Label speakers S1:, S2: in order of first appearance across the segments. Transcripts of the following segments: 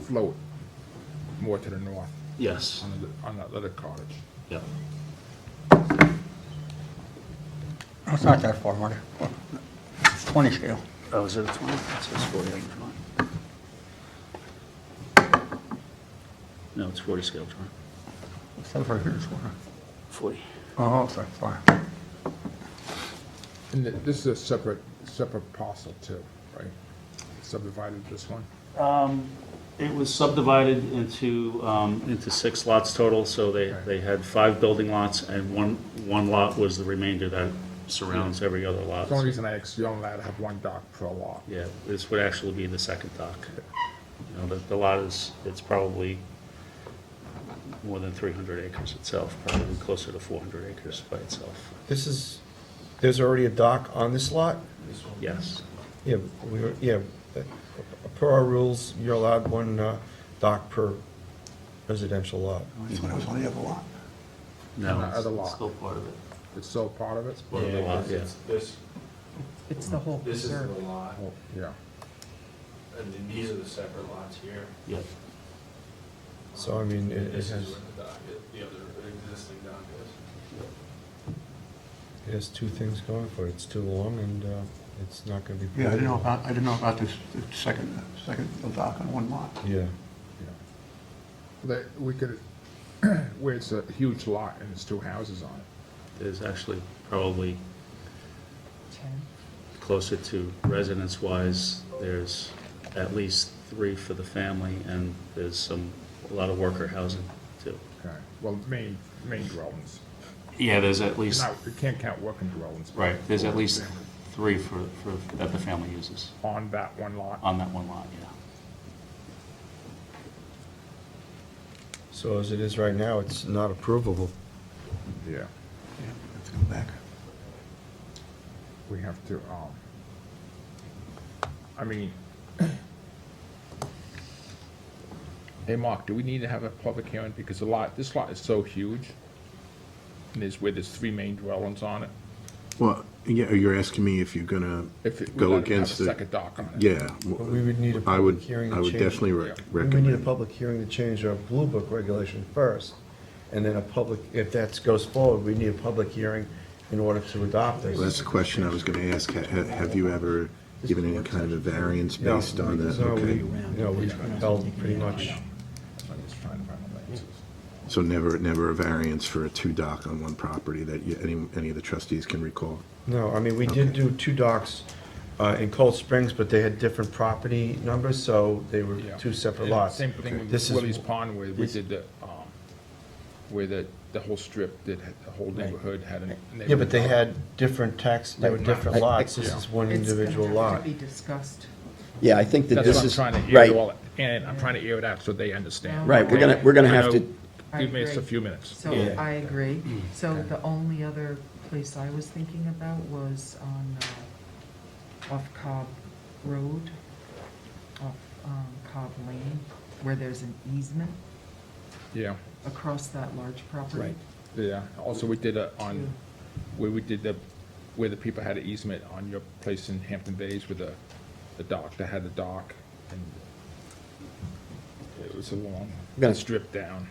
S1: float more to the north
S2: Yes,
S1: on the, on that little cottage.
S2: yeah.
S3: It's not that far, Marty. It's 20 scale.
S2: Oh, is it a 20? It says 48 drawing. No, it's 40 scale drawing.
S3: It's over here this corner.
S2: 40.
S3: Oh, sorry, sorry.
S1: And th- this is a separate, separate parcel too, right? Subdivided this one.
S2: It was subdivided into... um, Into six lots total, so they,
S1: Right.
S2: they had five building lots, and one, one lot was the remainder that surrounds every other lot.
S1: The only reason I asked you on that, I have one dock per lot.
S2: Yeah, this would actually be the second dock. You know, the, the lot is, it's probably more than 300 acres itself, probably closer to 400 acres by itself.
S4: This is, there's already a dock on this lot?
S2: Yes,
S4: Yeah, we, were- yeah, uh, per our rules, you're allowed one uh, dock per residential lot.
S3: That's when it was on the other lot.
S2: no.
S1: Another
S2: it's-
S1: lot.
S2: it's part of it.
S1: It's still part of it?
S2: Part of the lot, yeah.
S5: This,
S6: It's the whole
S5: this is the
S6: preserve.
S5: lot,
S1: Oh, Yeah.
S5: and then these are the separate lots here.
S2: Yeah,
S4: So, I mean, it it
S5: This
S4: has,
S5: is where the dock, is- the other existing dock is.
S4: it has two things going for it. It's too long and uh, it's not gonna be.
S3: Yeah, I didn't know about, I didn't know about this this second, second dock on one lot.
S4: Yeah,
S1: Yeah. That, we could, where it's a huge lot and there's two houses on it.
S2: there's actually probably
S6: Ten.
S2: closer to residence-wise, there's at least three for the family, and there's some, a lot of worker housing, too.
S1: Okay, well, main, main dwellings.
S2: Yeah, there's at least,
S1: Now, you can't count working dwellings. but
S2: right, there's at least three for, for, that the family uses
S1: On that one lot.
S2: on that one lot, yeah.
S4: so as it is right now, it's not approvable.
S1: Yeah.
S3: Yeah, have to go back.
S1: We have to, um, I mean, hey, Mark, do we need to have a public hearing? Because the lot, this lot is so huge. And there's where there's three main dwellings on it.
S7: Well, yeah, you're asking me if you're gonna
S1: If it- we
S7: go
S1: gotta have a
S7: against it.
S1: second dock on it.
S7: Yeah.
S4: But we would need a
S7: I
S4: public
S7: would,
S4: hearing to
S7: I would
S4: change-
S7: definitely rec-
S1: Yeah.
S4: We would need a
S7: recommend.
S4: public hearing to change our Blue Book regulation first, and then a public, if that goes forward, we need a public hearing in order to adopt
S7: Well, That's
S4: this.
S7: the question I was gonna ask. Ha- ha- Have you ever given any kind of a variance
S4: No,
S7: based on that?
S4: no, we-
S7: Okay.
S4: No, we held pretty much,
S1: So I'm just trying to find the answers.
S7: So never, never a variance for a two dock on one property that you, any, any of the trustees can recall?
S4: no, I mean, we did
S7: Okay.
S4: do two docks uh, in Cold Springs, but they had different property numbers, so they were
S1: Yeah.
S4: two separate
S1: And
S4: lots.
S1: Same thing
S4: This
S1: with
S4: is-
S1: Willie's Pond where we
S4: this-
S1: did the, um, where the, the whole strip, that had- the whole neighborhood had a.
S4: Yeah, but they had different tax, they were different
S1: I- I-
S4: lots, this is one
S6: It's gonna
S4: individual
S6: have
S4: lot.
S6: To be discussed.
S8: Yeah, I think that
S1: That's
S8: this
S1: what I'm
S8: is,
S1: trying to
S8: right,
S1: air all, and I'm trying to air it out so they understand.
S8: right, we're gonna, we're gonna have
S1: I know-
S8: to,
S6: I
S1: Give me just a
S6: agree.
S1: few minutes.
S6: So
S4: Yeah.
S6: I agree. So the only other place I was thinking about was on, uh, off Cobb Road, off um, Cobb Lane, where there's an easement
S1: Yeah,
S6: across that large property.
S1: Right. yeah. Also, we did a, on, where we did the, where the people had an easement on your place in Hampton Bays with the, the dock, that had the dock. and It was a long,
S8: I'm gonna-
S1: strip down,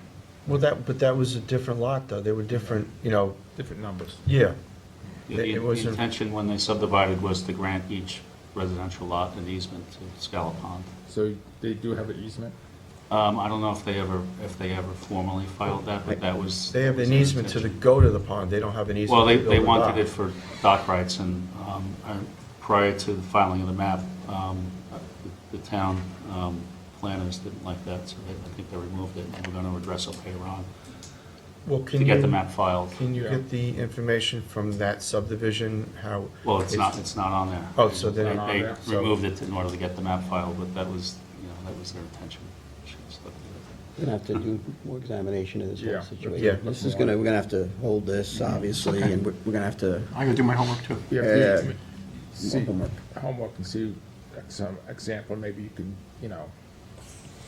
S4: Well, that, but that was a different lot, though, they were different, you know,
S1: different numbers.
S4: yeah.
S2: The
S4: It- it
S2: the
S4: was a-
S2: intention when they subdivided was to grant each residential lot an easement to Scala Pond.
S1: So they do have an easement?
S2: Um, I don't know if they ever, if they ever formally filed that, but that was.
S4: They have
S2: that was
S4: an
S2: their
S4: easement to the,
S2: intention.
S4: go to the pond, they don't have an easement.
S2: Well, they,
S4: to build
S2: they
S4: a dock.
S2: wanted it for dock rights and, um, I- prior to the filing of the map, um, the the town, um, planners didn't like that, so they, I think they removed it and we're gonna address it later on
S4: Well,
S2: to
S4: can
S2: get the
S4: you-
S2: map filed.
S4: Can you
S1: Yeah.
S4: get the information from that subdivision, how?
S2: Well, it's not, it's not on there.
S4: Oh, so they're
S2: They-
S4: not
S1: on there,
S2: They
S4: so-
S2: removed it in order to get the map filed, but that was, you know, that was their intention. Should've stuck with it.
S8: we're gonna have to do more examination of this
S1: Yeah.
S4: Yeah.
S8: whole situation. This is gonna, we're gonna have to hold this, obviously, and we're, we're gonna have to,
S3: I gotta do my homework too.
S1: Yeah,
S8: Yeah.
S1: please, see,
S8: Homework.
S1: homework and see some example, maybe you can, you know,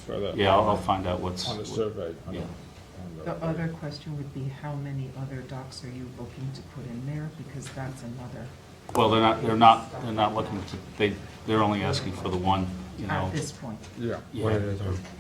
S1: further.
S2: Yeah, I'll, I'll find out what's.
S1: On the survey. on the-
S2: Yeah.
S1: on
S6: The other question would be how many other docks are you looking to put in there? Because that's another,
S2: Well, they're not, they're not, they're not looking to, they, they're only asking for the one, you know.
S6: at this point.
S1: Yeah.
S2: Yeah.
S4: One at a time.